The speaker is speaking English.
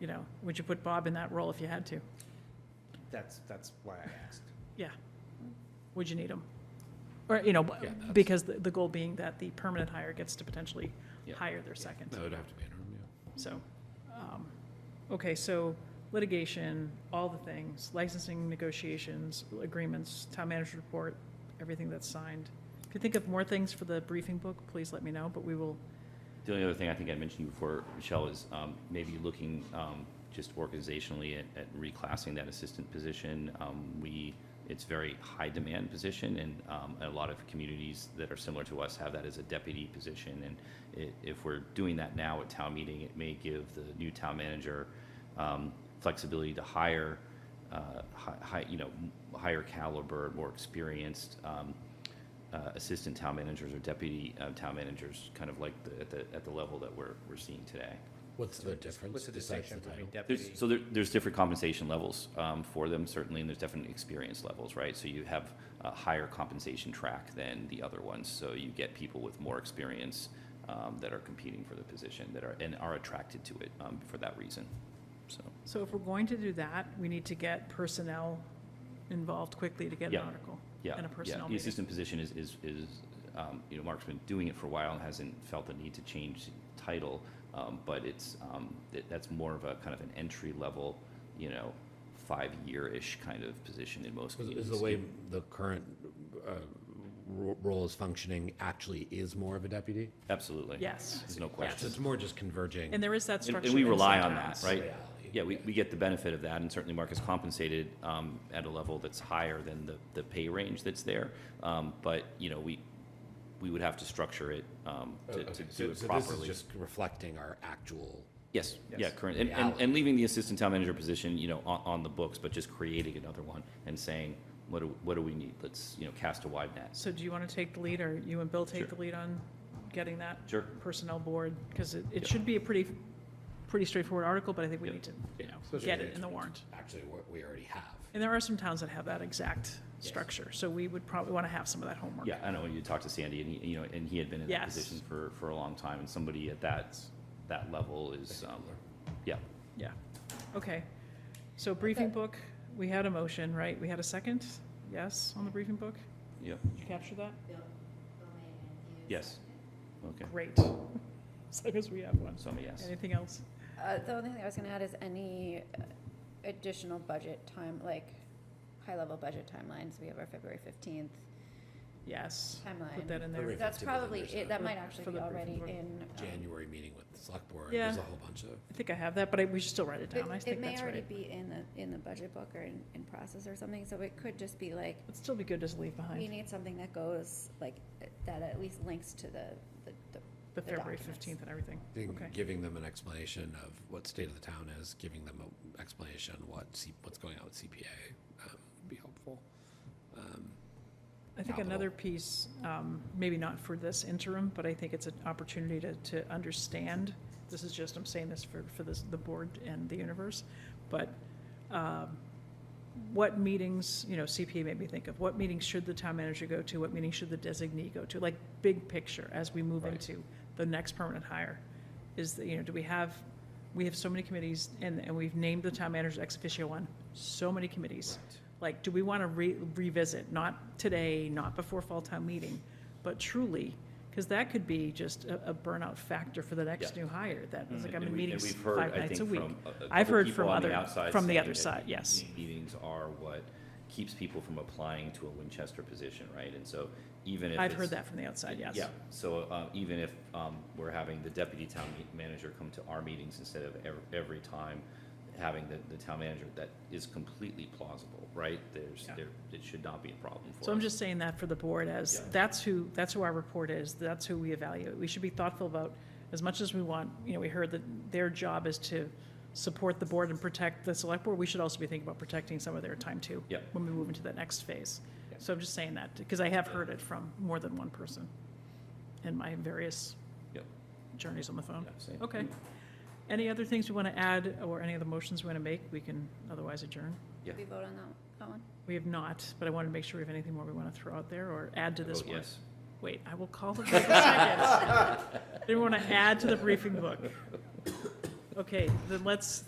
you know, would you put Bob in that role if you had to? That's, that's why I asked. Yeah. Would you need him? Or, you know, b- Yeah, that's- because the, the goal being that the permanent hire gets to potentially Yeah. hire their second. That would have to be interim, yeah. So, um, okay, so litigation, all the things, licensing negotiations, agreements, town manager report, everything that's signed. If you think of more things for the briefing book, please let me know, but we will, The only other thing I think I mentioned to you before, Michelle, is um, maybe looking um, just organizationally at, at reclassing that assistant position. Um, we, it's very high demand position, and um, a lot of communities that are similar to us have that as a deputy position. And i if we're doing that now at town meeting, it may give the new town manager um, flexibility to hire, uh, hi- hi, you know, m- higher caliber, more experienced um, uh, assistant town managers or deputy uh, town managers, kind of like the, at the, at the level that we're, we're seeing today. What's the What's difference the besides the distinction title? between There's, deputy? so there, there's different compensation levels um, for them, certainly, and there's definite experience levels, right? So you have a higher compensation track than the other ones, so you get people with more experience um, that are competing for the position, that are, and are attracted to it um, for that reason, so. so if we're going to do that, we need to get personnel involved quickly to get an Yeah. article. Yeah, And a yeah. personnel The meeting. assistant position is, is, is, um, you know, Mark's been doing it for a while and hasn't felt the need to change title. um, But it's, um, that, that's more of a kind of an entry level, you know, five-year-ish kind of position in most Is- communities. Is the way the current uh, ro- role is functioning actually is more of a deputy? Absolutely. Yes. There's no So question. it's more just converging. And there is that And structure. and we in rely some on that, towns. right? Yeah. Yeah, we, we get the benefit of that, and certainly Mark is compensated um, at a level that's higher than the, the pay range that's there. Um, But, you know, we, we would have to structure it um, Oh, to okay. to So- do it so properly. this is just reflecting our actual, Yes, yeah, Yes. current, and, and, Reality. and leaving the assistant town manager position, you know, on, on the books, but just creating another one and saying, what do, what do we need? Let's, you know, cast a wide net. So do you want to take the lead, or you and Bill take Sure. the lead on getting that? Sure. Personnel board, because it, it Yeah. should be a pretty, pretty straightforward article, but I think we Yeah. need to, you know, Especially get if it in the warrant. actually what we already have. And there are some towns that have that exact Yes. structure, so we would probably want to have some of that homework. Yeah, I know, you talked to Sandy and he, you know, and he had been in that Yes. position for, for a long time and somebody at that, that level is, um, yeah. Yeah, okay. So briefing book, we had a motion, right? We had a second, yes, on the briefing book? Yeah. Did you capture that? Yes. Okay, Great. As long as we have one. so I'm a yes. Anything else? Uh, the only thing I was gonna add is any uh, additional budget time, like, high-level budget timelines, we have our February fifteenth Yes. Put that timeline. in there. Perfect. That's 15th was probably, understood. it. that might For actually the be already briefing board. in. um, January meeting with the select board, there's Yeah. a whole bunch of. I think I have that, but I, we should still write it It down, I it think may that's already right. be in the, in the budget book or in, in process or something, so it could just be like, It'd still be good to just leave we behind need something that goes, like, that at least links to the, the, the the the February documents. fifteenth and everything. I think Okay. giving them an explanation of what state of the town is, giving them an explanation what C, what's going on with CPA um, would be helpful. Um, I think capital. another piece, um, maybe not for this interim, but I think it's an opportunity to, to understand, this is just, I'm saying this for, for this, the board and the universe, but, um, what meetings, you know, CPA made me think of, what meetings should the town manager go to, what meetings should the designee go to? Like, big picture, as we move Right. into the next permanent hire, is, that, you know, do we have, we have so many committees, and, and we've named the town manager ex officio on so many committees. Like, do we want to re- revisit, not today, not before fall town meeting, but truly, because that could be just a, a burnout factor for the next Yeah. Mm-hmm. new hire, that it's like I'm And in we- and meetings we've heard, five I nights a think, week. from a- a I've couple heard people from on the other- outside from the saying other that side, yes. these Meetings are what keeps people from applying to a Winchester position, right? And so even if I've it's- heard that from the outside, yes. Yeah, so uh, even if um, we're having the deputy town me- manager come to our meetings instead of ev- every time having the, the town manager, that is completely plausible, right? There's, Yeah. there, it should not be a problem for us. So I'm just saying that for the board as, Yeah. that's who, that's who our report is, that's who we evaluate. We should be thoughtful about, as much as we want, you know, we heard that their job is to support the board and protect the select board, we should also be thinking about protecting some of their time too. Yeah. When we move into that next phase. Yeah. So I'm just saying that, because I have heard it from more than one person in my various Yep. journeys on the phone. Yeah, same. Okay. Any other things we want to add, or any other motions we want to make, we can otherwise adjourn? Did we vote on that, that one? We have not, but I wanted to make sure we have anything more we want to throw out there or add to I this vote one. Yes. Wait, I will call the vote in a second. Didn't want to add to the briefing book. Okay, then let's,